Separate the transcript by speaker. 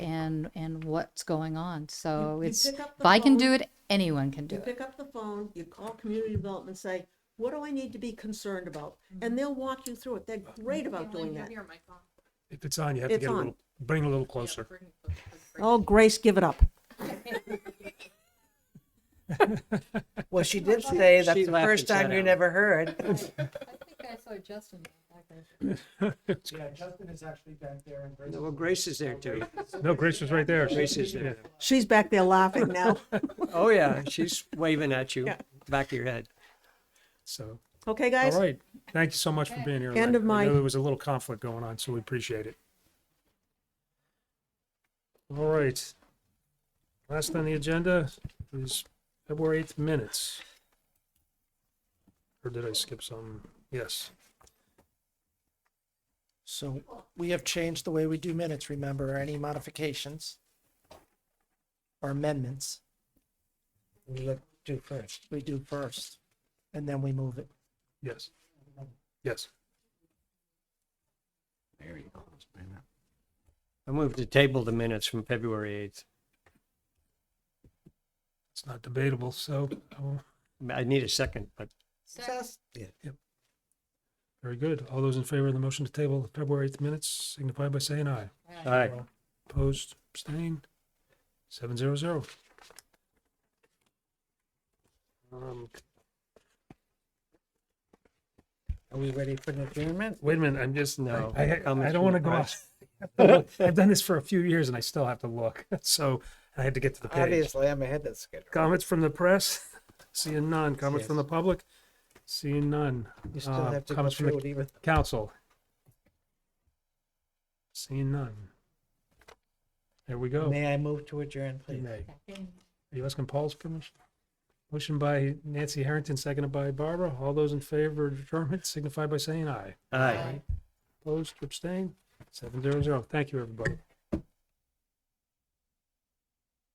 Speaker 1: what's going on. So
Speaker 2: you
Speaker 1: it's,
Speaker 2: pick up
Speaker 1: if
Speaker 2: the
Speaker 1: I can do
Speaker 2: phone.
Speaker 1: it, anyone can do
Speaker 2: You
Speaker 1: it.
Speaker 2: pick up the phone, you call community development, and say, what do I need to be concerned about? And they'll walk you through it. They're
Speaker 3: Mm-hmm.
Speaker 2: great about doing that.
Speaker 4: If it's on, you have to
Speaker 2: It's
Speaker 4: get a
Speaker 2: on.
Speaker 4: little, bring it a little closer.
Speaker 2: Oh, Grace, give it up.
Speaker 3: Well, she did say that's
Speaker 5: She
Speaker 3: the
Speaker 5: laughed
Speaker 3: first
Speaker 5: and sat
Speaker 3: time you
Speaker 5: down.
Speaker 3: never heard.
Speaker 1: I think I saw Justin.
Speaker 6: Yeah, Justin is actually back there and Grace.
Speaker 5: No, well, Grace is there too.
Speaker 4: No, Grace was right there.
Speaker 5: Grace is there.
Speaker 2: She's back there laughing now.
Speaker 5: Oh, yeah, she's waving at you,
Speaker 2: Yeah.
Speaker 5: back of your head.
Speaker 4: So,
Speaker 2: Okay,
Speaker 4: all
Speaker 2: guys?
Speaker 4: right. Thank you so much for being here.
Speaker 2: End
Speaker 4: Lynn.
Speaker 2: of
Speaker 4: I
Speaker 2: my-
Speaker 4: know there was a little conflict going on, so we appreciate it. All right. Last on the agenda is February 8th minutes. Or did I skip some? Yes.
Speaker 6: So we have changed the way we do minutes, remember, any modifications or amendments? We look- do first, we do first, and then we move it.
Speaker 4: Yes. Yes.
Speaker 5: I moved to table the minutes from February
Speaker 4: It's not debatable, so oh,
Speaker 5: 8th. I need a second, but
Speaker 4: very good. All those in favor of the motion to table the February 8th minutes signify by saying aye.
Speaker 5: all right.
Speaker 4: Opposed, abstained, seven zero zero. Um,
Speaker 6: Are we ready for an adjournment?
Speaker 4: wait a minute, I'm just,
Speaker 5: No,
Speaker 4: no, I, I- I
Speaker 5: comments
Speaker 4: don't
Speaker 5: from
Speaker 4: want to
Speaker 5: the
Speaker 4: go off.
Speaker 5: press.
Speaker 4: I've done this for a few years and I still have to look, so I had to get to the page.
Speaker 6: Obviously, I'm ahead of schedule.
Speaker 4: Comments from the press, seeing none. Comments from the public, seeing none.
Speaker 6: You still
Speaker 4: Uh,
Speaker 6: have to go
Speaker 4: comments from the
Speaker 6: through it even.
Speaker 4: Council. Seeing none. There we go.
Speaker 6: May I move to adjourn,
Speaker 4: You
Speaker 6: please?
Speaker 4: may. Are you asking Paul's permission? Motion by Nancy Harrington, seconded by Barbara. All those in favor of adjournment signify by saying aye.
Speaker 5: Aye.
Speaker 4: Opposed, abstained, seven zero zero. Thank you, everybody.